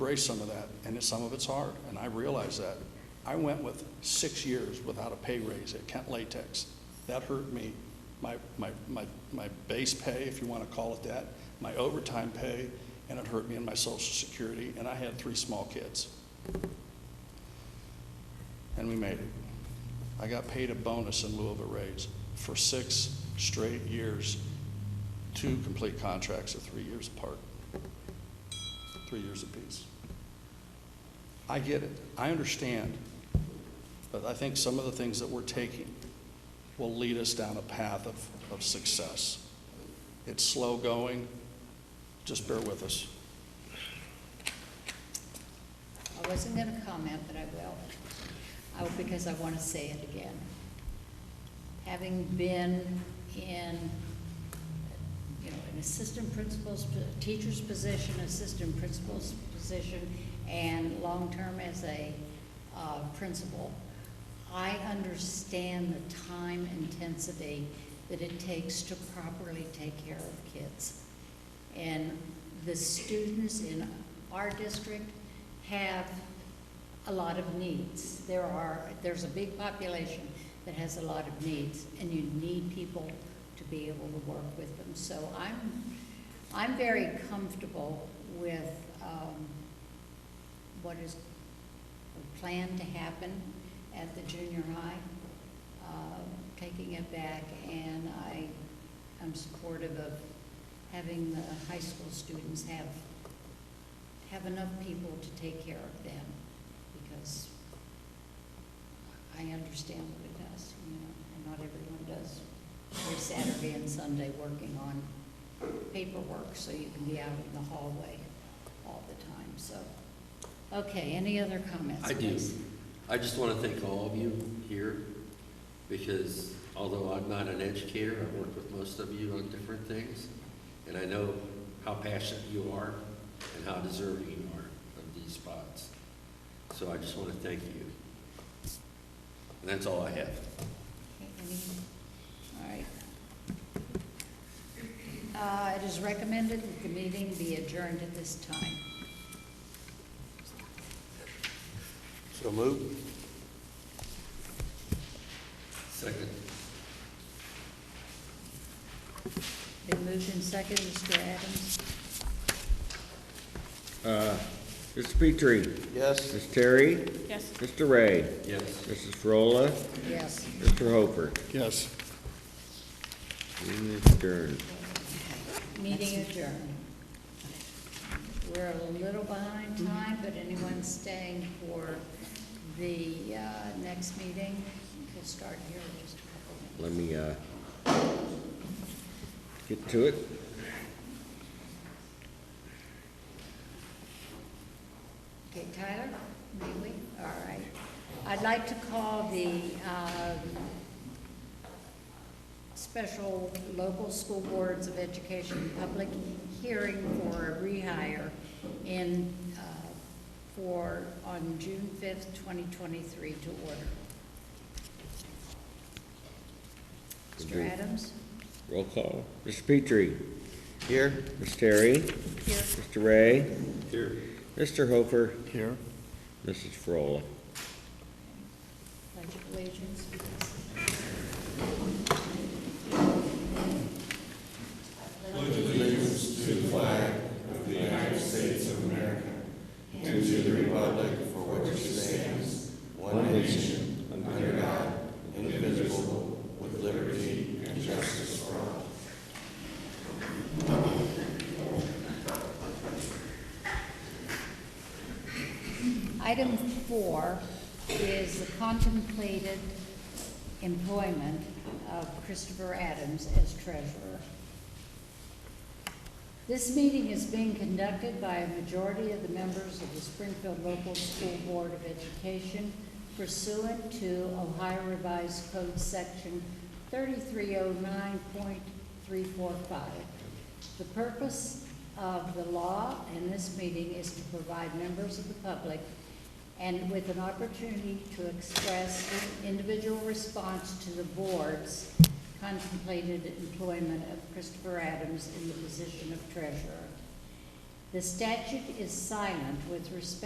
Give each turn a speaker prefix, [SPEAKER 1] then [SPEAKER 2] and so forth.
[SPEAKER 1] embrace some of that, and it- some of it's hard, and I realize that. I went with six years without a pay raise at Kent Latex. That hurt me. My, my, my, my base pay, if you want to call it that, my overtime pay, and it hurt me in my social security, and I had three small kids. And we made it. I got paid a bonus in lieu of a raise for six straight years, two complete contracts of three years apart three years apiece. I get it, I understand, but I think some of the things that we're taking will lead us down a path of, of success. It's slow going, just bear with us.
[SPEAKER 2] I wasn't going to comment, but I will, I- because I want to say it again. Having been in, you know, an assistant principal's, teacher's position, assistant principal's position, and long-term as a uh, principal, I understand the time intensity that it takes to properly take care of kids. And the students in our district have a lot of needs. There are, there's a big population that has a lot of needs, and you need people to be able to work with them. So I'm, I'm very comfortable with um, what is planned to happen at the junior high, uh, taking it back, and I am supportive of having the high school students have, have enough people to take care of them, because I understand what it does, you know, and not everyone does. Their Saturday and Sunday working on paperwork, so you can be out in the hallway all the time, so. Okay, any other comments,
[SPEAKER 3] I do.
[SPEAKER 2] please?
[SPEAKER 3] I just want to thank all of you here, because although I'm not an educator, I've worked with most of you on different things, and I know how passionate you are and how deserving you are of these spots. So I just want to thank you. And that's all I have.
[SPEAKER 2] Okay, any- All right. Uh, It is recommended that the meeting be adjourned at this time.
[SPEAKER 3] So moved. Second.
[SPEAKER 2] Been moved in second, Mr. Adams?
[SPEAKER 4] Mr. Petrie.
[SPEAKER 3] Yes.
[SPEAKER 4] Ms. Terry.
[SPEAKER 5] Yes.
[SPEAKER 4] Mr. Ray.
[SPEAKER 3] Yes.
[SPEAKER 4] Mrs. Frola.
[SPEAKER 2] Yes.
[SPEAKER 4] Mr. Hoper.
[SPEAKER 1] Yes.
[SPEAKER 4] Dean Stern.
[SPEAKER 2] Meeting adjourned. We're a little behind time, but anyone staying for the uh, next meeting, we'll start here in just a couple minutes.
[SPEAKER 4] Let me, uh, get to it.
[SPEAKER 2] Okay, Tyler, may we? All right. I'd like to call the um, Special Local School Boards of Education public hearing for a rehire in, uh, for, on June 5th, 2023 to order. Mr. Adams?
[SPEAKER 4] Roll call. Mr. Petrie.
[SPEAKER 3] Here.
[SPEAKER 4] Ms. Terry.
[SPEAKER 2] Here.
[SPEAKER 4] Mr. Ray.
[SPEAKER 3] Here.
[SPEAKER 4] Mr. Hoper.
[SPEAKER 1] Here.
[SPEAKER 4] Mrs. Frola.
[SPEAKER 2] Pledge of allegiance, please. Item four is the contemplated employment of Christopher Adams as treasurer. This meeting is being conducted by a majority of the members of the Springfield Local School Board of Education pursuant to Ohio Revised Code Section 3309.345. The purpose of the law in this meeting is to provide members of the public and with an opportunity to express individual response to the board's contemplated employment of Christopher Adams in the position of treasurer. The statute is silent with respect